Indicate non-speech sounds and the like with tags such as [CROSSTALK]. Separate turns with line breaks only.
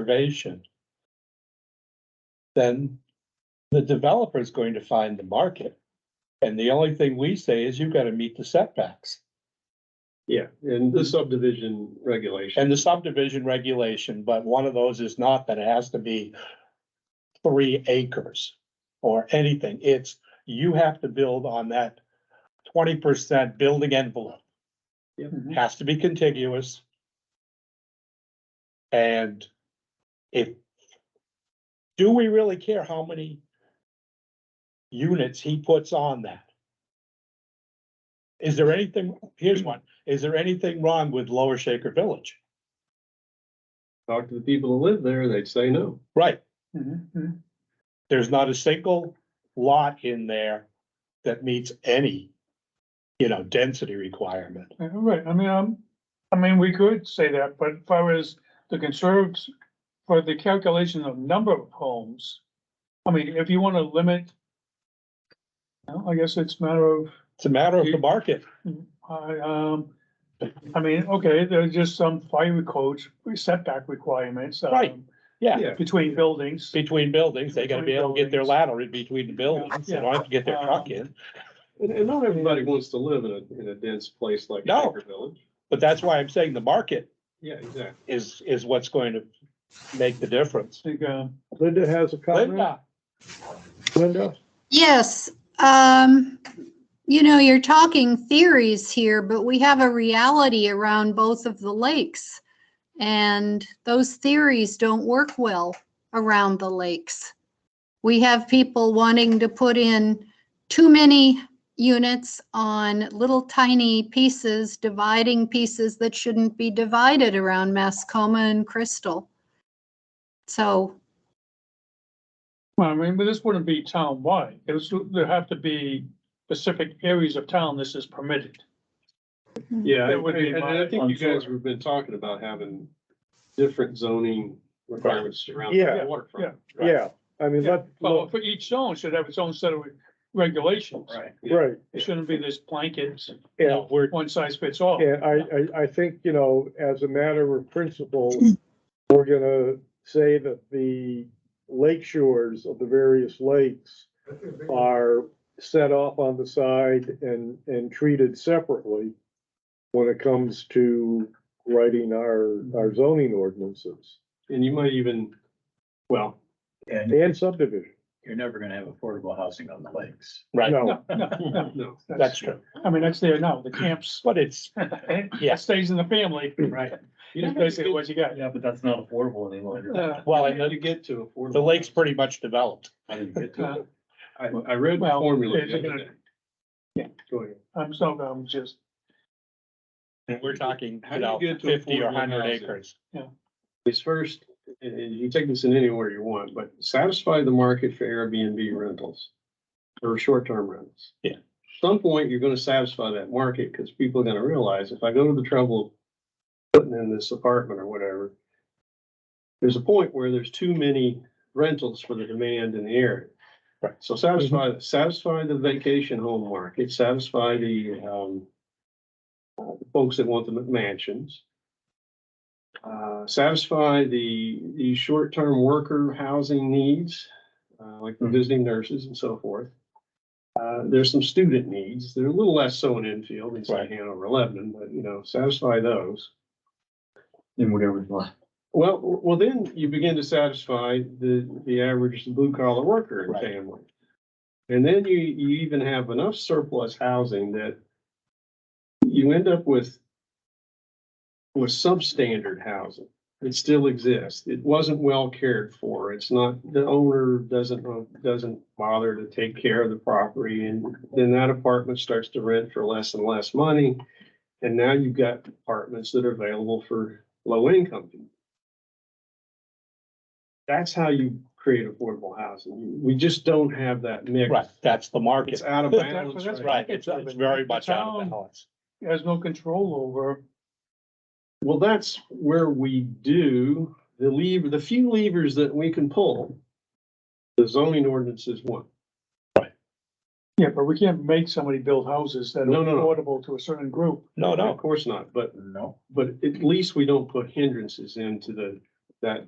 conservation, then the developer is going to find the market. And the only thing we say is you've got to meet the setbacks
Yeah, and the subdivision regulation.
and the subdivision regulation, but one of those is not that it has to be three acres or anything. It's, you have to build on that twenty percent building envelope.
Yep.
has to be contiguous. And if, do we really care how many units he puts on that? Is there anything, here's one, is there anything wrong with Lower Shaker Village?
Talk to the people who live there, they'd say no.
Right, there's not a single lot in there that meets any, you know, density requirement.
Yeah, Right, I mean, um, I mean, we could say that, but if I was the conservatives for the calculation of number of homes. I mean, if you wanna limit. you know, I guess it's a matter of,
It's a matter of the market.
I, um, I mean, okay, there's just some fire codes, setback requirements. um,
Right, yeah.
Yeah.
Between buildings.
Between buildings, they gotta be able to get their ladder in between the buildings, they don't have to get their truck in.
And, and not everybody wants to live in a, in a dense place like
No.
Shaker Village.
But that's why I'm saying the market
Yeah, exactly.
is, is what's going to make the difference.
Like, um,
Linda has a comment.
Linda,
Linda,
Yes, um, you know, you're talking theories here, but we have a reality around both of the lakes. And those theories don't work well around the lakes. We have people wanting to put in too many units on little tiny pieces, dividing pieces that shouldn't be divided around Mascoma and Crystal. So
well, I mean, but this wouldn't be town-wide. it's, there have to be specific areas of town this is permitted.
Yeah,
That would be
and and
my-
I think you
I'm
guys
sure.
have been talking about having different zoning requirements around
Yeah,
the waterfront. right?
yeah, I mean,
Yeah,
let,
Well, for each zone should have its own set of regulations.
Right. yeah.
right,
It shouldn't be this blanket,
you
yeah,
know, we're,
one size fits all.
and I, I, I think, you know, as a matter of principle, we're gonna say that the lake shores of the various lakes are set off on the side and, and treated separately when it comes to writing our, our zoning ordinances
And you might even, well,
And
and subdivision.
you're never gonna have affordable housing on the lakes.
right,
No,
No, no, no,
no,
that's true,
I mean, that's there now, the camps,
but it's, [LAUGHS]
[LAUGHS]
Yeah.
it stays in the family,
Right.
you
[LAUGHS] That's
know,
basically what you got.
Yeah, but that's not affordable any longer.
Uh,
well,
you-
and
you get to affordable.
the lake's pretty much developed.
I didn't get to it.
I, I read the
Well,
formula.
it's
the other
gonna-
day.
Yeah.
Go ahead.
I'm so, I'm just,
And [LAUGHS] we're talking,
How
you
do you
know,
get to
fifty or
affordable
hundred
housing?
acres.
is first, and and you take this in any order you want, but satisfy the market for Airbnb rentals or short-term rentals.
Yeah.
Some point, you're gonna satisfy that market because people are gonna realize if I go to the trouble of putting in this apartment or whatever, there's a point where there's too many rentals for the demand in the area.
Right. Mm-hmm.
So satisfy, satisfy the vacation home market, satisfy the, um, uh, folks that want the mansions uh, satisfy the, the short-term worker housing needs, uh, like
Mm-hmm.
the
Mhm.
visiting nurses and so forth. Uh, there's some student needs. They're a little less so in Enfield, it's like
Right.
Hanover, Lebanon, but you know, satisfy those.
In whatever. lot.
Well, well, then you begin to satisfy the, the average blue collar worker and
Right.
family. And then you, you even have enough surplus housing that you end up with, with substandard housing. It still exists. It wasn't well cared for. It's not, the owner doesn't, doesn't bother to take care of the property. And then that apartment starts to rent for less and less money. And now you've got apartments that are available for low income people that's how you create affordable housing. We just don't have that mix.
Right, that's the market.
It's out
[LAUGHS]
of balance.
That's
Right, it's, it's very much out of balance.
it has no control over,
Well, that's where we do the lever, the few levers that we can pull. The zoning ordinance is one.
yeah, but we can't make somebody build houses that are
No, no, no.
affordable to a certain group.
No,
Of
no,
course not, but,
No.
but at least we don't put hindrances into the, that